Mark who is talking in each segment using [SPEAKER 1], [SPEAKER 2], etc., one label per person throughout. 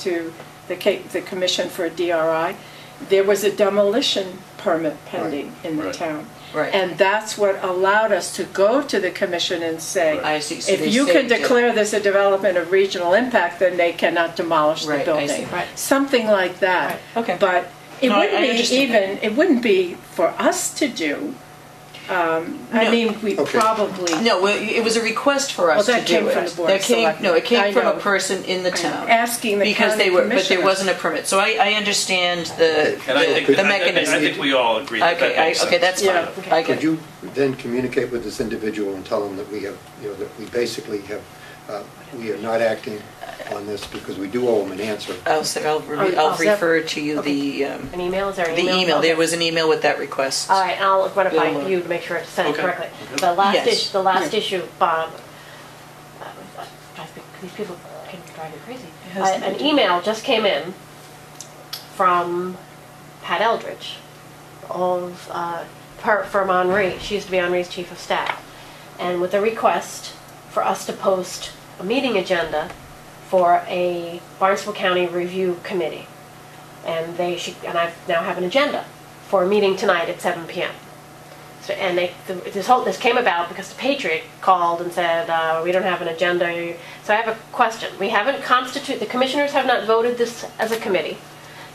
[SPEAKER 1] to the ca- the commission for a DRI, there was a demolition permit pending in the
[SPEAKER 2] Right.
[SPEAKER 1] town.
[SPEAKER 3] Right.
[SPEAKER 1] And that's what allowed us to go to the commission and say,
[SPEAKER 3] I see. So they
[SPEAKER 1] if you can
[SPEAKER 3] saved it.
[SPEAKER 1] declare this a development of regional impact, then they cannot demolish the
[SPEAKER 3] Right, I see.
[SPEAKER 1] building.
[SPEAKER 4] Right.
[SPEAKER 1] Something like that.
[SPEAKER 4] Right, okay.
[SPEAKER 1] But it
[SPEAKER 4] No, I- I
[SPEAKER 1] wouldn't be
[SPEAKER 4] understand.
[SPEAKER 1] even, it wouldn't be for us to do. Um, I
[SPEAKER 4] No.
[SPEAKER 1] mean, we
[SPEAKER 2] Okay.
[SPEAKER 1] probably.
[SPEAKER 3] No, well, it was a request for
[SPEAKER 1] Well,
[SPEAKER 3] us to do
[SPEAKER 1] that
[SPEAKER 3] it.
[SPEAKER 1] came from the Board of
[SPEAKER 3] That came- No, it
[SPEAKER 1] Selectmen. I
[SPEAKER 3] came from
[SPEAKER 1] know.
[SPEAKER 3] a person in the town.
[SPEAKER 1] Asking the
[SPEAKER 3] Because
[SPEAKER 1] county
[SPEAKER 3] they were, but there
[SPEAKER 1] commissioners.
[SPEAKER 3] wasn't a permit. So I, I understand the,
[SPEAKER 2] And I think,
[SPEAKER 3] the- the
[SPEAKER 2] I- I- I
[SPEAKER 3] mechanism.
[SPEAKER 2] think we all agree that that
[SPEAKER 3] Okay, I-
[SPEAKER 2] makes sense.
[SPEAKER 3] okay, that's
[SPEAKER 1] Yeah.
[SPEAKER 3] fine. I get
[SPEAKER 5] Could
[SPEAKER 3] it.
[SPEAKER 5] you then communicate with this individual and tell him that we have, you know, that we basically have, uh, we are not acting on this because we do owe him an answer.
[SPEAKER 3] I'll, say- I'll, re-
[SPEAKER 4] Oh,
[SPEAKER 3] I'll
[SPEAKER 4] oh,
[SPEAKER 1] so-
[SPEAKER 3] refer to you the, um,
[SPEAKER 4] An email, is there an
[SPEAKER 3] the
[SPEAKER 4] email?
[SPEAKER 3] email. There
[SPEAKER 4] Okay.
[SPEAKER 3] was an email with that request.
[SPEAKER 4] All right, and I'll run it
[SPEAKER 3] Yeah.
[SPEAKER 4] by you to make sure it's sent
[SPEAKER 2] uh, Okay.
[SPEAKER 4] correctly. The last
[SPEAKER 3] Yes.
[SPEAKER 4] issue, the last
[SPEAKER 1] Yeah.
[SPEAKER 4] issue, Bob, uh, drives me- these people can drive you crazy.
[SPEAKER 3] It has
[SPEAKER 4] Uh,
[SPEAKER 3] nothing to
[SPEAKER 4] An
[SPEAKER 3] do-
[SPEAKER 4] email just came in from Pat Eldridge of, uh, per- from Henri. She used to be Henri's chief of staff. And with a request for us to post a meeting agenda for a Barnstable County Review Committee and they should, and I now have an agenda for a meeting tonight at 7 p.m. So, and they, th- this whole, this came about because the Patriot called and said, uh, we don't have an agenda. So I have a question. We haven't constitute, the commissioners have not voted this as a committee.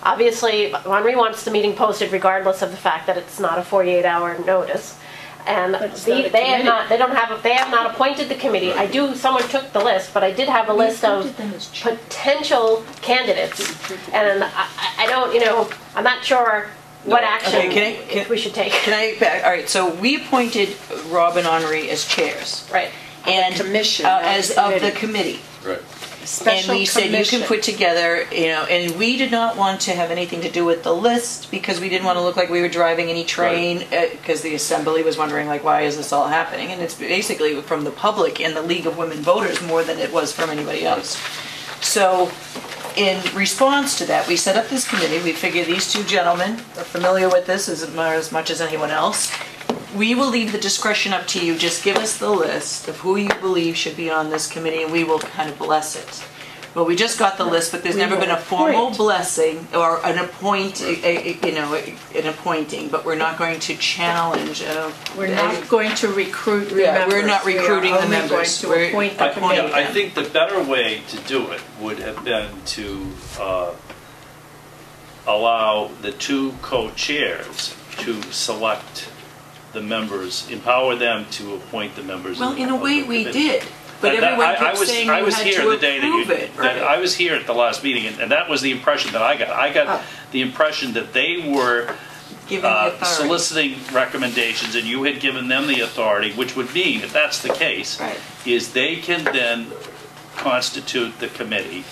[SPEAKER 4] Obviously, Henri wants the meeting posted regardless of the fact that it's not a 48-hour notice. And
[SPEAKER 1] it's not
[SPEAKER 4] the-
[SPEAKER 1] a
[SPEAKER 4] they have
[SPEAKER 1] committee.
[SPEAKER 4] not, they don't have, a- they have not appointed the committee. I do, someone took the list, but I did have a list of potential candidates, and I, I- I don't, you know, I'm not sure what
[SPEAKER 3] Okay,
[SPEAKER 4] action
[SPEAKER 3] can I- can-
[SPEAKER 4] we should take.
[SPEAKER 3] Can I, back- all right, so we appointed Rob and Henri as chairs.
[SPEAKER 4] Right.
[SPEAKER 3] And
[SPEAKER 1] commission,
[SPEAKER 3] uh,
[SPEAKER 1] not
[SPEAKER 3] As
[SPEAKER 1] the
[SPEAKER 3] of the
[SPEAKER 1] committee.
[SPEAKER 3] committee.
[SPEAKER 2] Right.
[SPEAKER 3] And
[SPEAKER 1] Special
[SPEAKER 3] we said you
[SPEAKER 1] commission.
[SPEAKER 3] can put together, you know, and we did not want to have anything to do with the list because we didn't want to look like we were driving any train because the assembly was wondering like, why is this all happening? And it's basically from the public and the League of Women Voters more than it was from anybody else. So in response to that, we set up this committee. We figure these two gentlemen are familiar with this as mu- as much as anyone else. We will leave the discretion up to you. Just give us the list of who you believe should be on this committee and we will kind of bless it. Well, we just got the list, but there's never been a formal
[SPEAKER 1] appoint.
[SPEAKER 3] blessing or an appoint, a- a- you know, an appointing, but we're not going to challenge. uh,
[SPEAKER 1] We're
[SPEAKER 3] a-
[SPEAKER 1] not going to recruit the
[SPEAKER 3] Yeah,
[SPEAKER 1] members.
[SPEAKER 3] we're not recruiting
[SPEAKER 1] We are
[SPEAKER 3] the
[SPEAKER 1] only
[SPEAKER 3] members.
[SPEAKER 1] going to
[SPEAKER 3] We're-
[SPEAKER 1] appoint
[SPEAKER 2] I,
[SPEAKER 1] the
[SPEAKER 3] appoint-
[SPEAKER 1] committee.
[SPEAKER 2] yeah, I think the better way to do it would have been to uh, allow the two co-chairs to select the members, empower them to appoint the members.
[SPEAKER 3] Well,
[SPEAKER 2] of the-
[SPEAKER 3] in a
[SPEAKER 2] of
[SPEAKER 3] way,
[SPEAKER 2] the
[SPEAKER 3] we
[SPEAKER 2] committee.
[SPEAKER 3] did, but
[SPEAKER 2] That- that- I-
[SPEAKER 3] everyone
[SPEAKER 2] I
[SPEAKER 3] kept
[SPEAKER 2] was-
[SPEAKER 3] saying
[SPEAKER 2] I
[SPEAKER 3] you
[SPEAKER 2] was
[SPEAKER 3] had
[SPEAKER 2] here
[SPEAKER 3] to
[SPEAKER 2] the day that you-
[SPEAKER 3] approve it,
[SPEAKER 2] that- I
[SPEAKER 3] right?
[SPEAKER 2] was here at the last meeting, and and that was the impression that I got. I
[SPEAKER 3] Oh.
[SPEAKER 2] got the impression that they were
[SPEAKER 3] Given the
[SPEAKER 2] uh,
[SPEAKER 3] authority.
[SPEAKER 2] soliciting recommendations, and you had given them the authority, which would mean, if that's the case,
[SPEAKER 3] Right.
[SPEAKER 2] is they can then constitute the committee,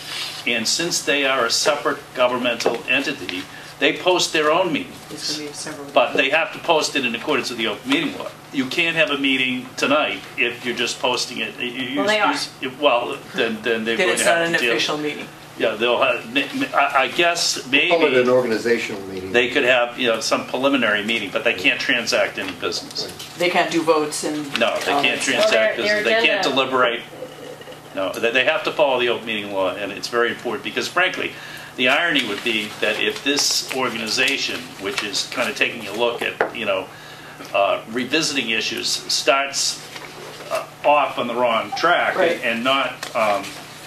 [SPEAKER 2] and since they are a separate governmental entity, they post their own
[SPEAKER 3] It's gonna
[SPEAKER 2] meetings,
[SPEAKER 3] be several-
[SPEAKER 2] but they have to post it in accordance with the open meeting law. You can't have a meeting tonight if you're just posting it. You- you-
[SPEAKER 4] Well, they are.
[SPEAKER 2] you- Well, then, then they're
[SPEAKER 3] Then
[SPEAKER 2] going
[SPEAKER 3] it's
[SPEAKER 2] to
[SPEAKER 3] not
[SPEAKER 2] have
[SPEAKER 3] an
[SPEAKER 2] to deal.
[SPEAKER 3] official meeting.
[SPEAKER 2] Yeah, they'll have, I, I guess maybe
[SPEAKER 5] Call it an organizational meeting.
[SPEAKER 2] they could have, you know, some preliminary meeting, but they can't transact any business.
[SPEAKER 3] They can't do votes and. um,
[SPEAKER 2] No, they
[SPEAKER 3] all
[SPEAKER 2] can't
[SPEAKER 3] that.
[SPEAKER 4] Well, their-
[SPEAKER 2] transact business,
[SPEAKER 4] their
[SPEAKER 2] they can't
[SPEAKER 4] agenda-
[SPEAKER 2] deliberate. No, they, they have to follow the open meeting law, and it's very important, because frankly, the irony would be that if this organization, which is kind of taking a look at, you know, uh, revisiting issues, starts uh, off on the wrong track
[SPEAKER 3] Right.
[SPEAKER 2] and not um,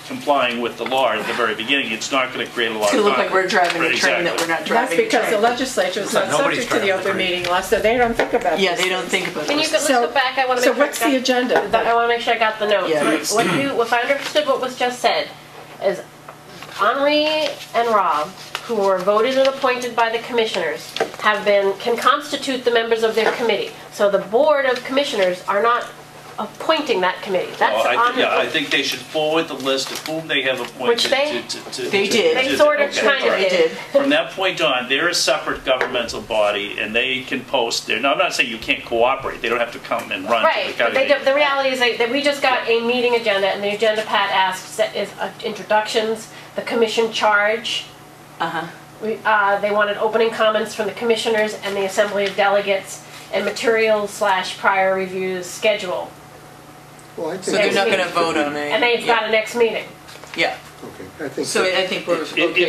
[SPEAKER 2] complying with the law at the very beginning, it's not going to create a lot of
[SPEAKER 3] It's gonna look like we're
[SPEAKER 2] conflict.
[SPEAKER 3] driving a train that
[SPEAKER 2] Exactly.
[SPEAKER 3] we're not
[SPEAKER 1] That's
[SPEAKER 3] driving a
[SPEAKER 1] because the
[SPEAKER 3] train.
[SPEAKER 1] legislature is not
[SPEAKER 6] Nobody's
[SPEAKER 1] subject to the
[SPEAKER 6] trying to
[SPEAKER 1] open
[SPEAKER 6] agree.
[SPEAKER 1] meeting law, so they don't think about
[SPEAKER 3] Yeah,
[SPEAKER 1] these
[SPEAKER 3] they don't think about
[SPEAKER 4] Can you
[SPEAKER 3] those.
[SPEAKER 4] go, let's
[SPEAKER 1] So-
[SPEAKER 4] go back, I want to
[SPEAKER 1] So
[SPEAKER 4] make
[SPEAKER 1] what's
[SPEAKER 4] sure.
[SPEAKER 1] the agenda?
[SPEAKER 4] I want to make sure I got the notes.
[SPEAKER 3] Yeah,
[SPEAKER 4] What-
[SPEAKER 3] it's-
[SPEAKER 4] What you, if I understood what was just said, is Henri and Rob, who were voted and appointed by the commissioners, have been, can constitute the members of their committee. So the board of commissioners are not appointing that committee.
[SPEAKER 2] Well,
[SPEAKER 4] That's
[SPEAKER 2] Oh, I thi- Yeah, I
[SPEAKER 4] Henri.
[SPEAKER 2] think they should forward the list of whom they have appointed.
[SPEAKER 4] Which they-
[SPEAKER 2] to- to- to-
[SPEAKER 3] They
[SPEAKER 2] to-
[SPEAKER 3] did.
[SPEAKER 2] to-
[SPEAKER 4] They sort of
[SPEAKER 2] okay,
[SPEAKER 4] kind
[SPEAKER 2] all
[SPEAKER 4] of
[SPEAKER 2] right.
[SPEAKER 3] They
[SPEAKER 4] did.
[SPEAKER 3] did.
[SPEAKER 2] From that point on, they're a separate governmental body, and they can post their, now, I'm not saying you can't cooperate, they don't have to come and run. to the
[SPEAKER 4] Right, but they,
[SPEAKER 2] county.
[SPEAKER 4] don't- the reality is that that we just got a meeting agenda, and the agenda Pat asks that is uh, introductions, the commission charge.
[SPEAKER 3] Uh-huh.
[SPEAKER 4] We, uh, they wanted opening comments from the commissioners and the assembly of delegates, and materials slash prior reviews schedule.
[SPEAKER 5] Well, I think
[SPEAKER 3] So they're
[SPEAKER 5] it's-
[SPEAKER 3] not gonna vote on it.
[SPEAKER 4] And they've got a next meeting.
[SPEAKER 3] Yeah,
[SPEAKER 7] Okay, I think.
[SPEAKER 3] So
[SPEAKER 7] that-
[SPEAKER 3] I think we're
[SPEAKER 5] It- it-
[SPEAKER 3] okay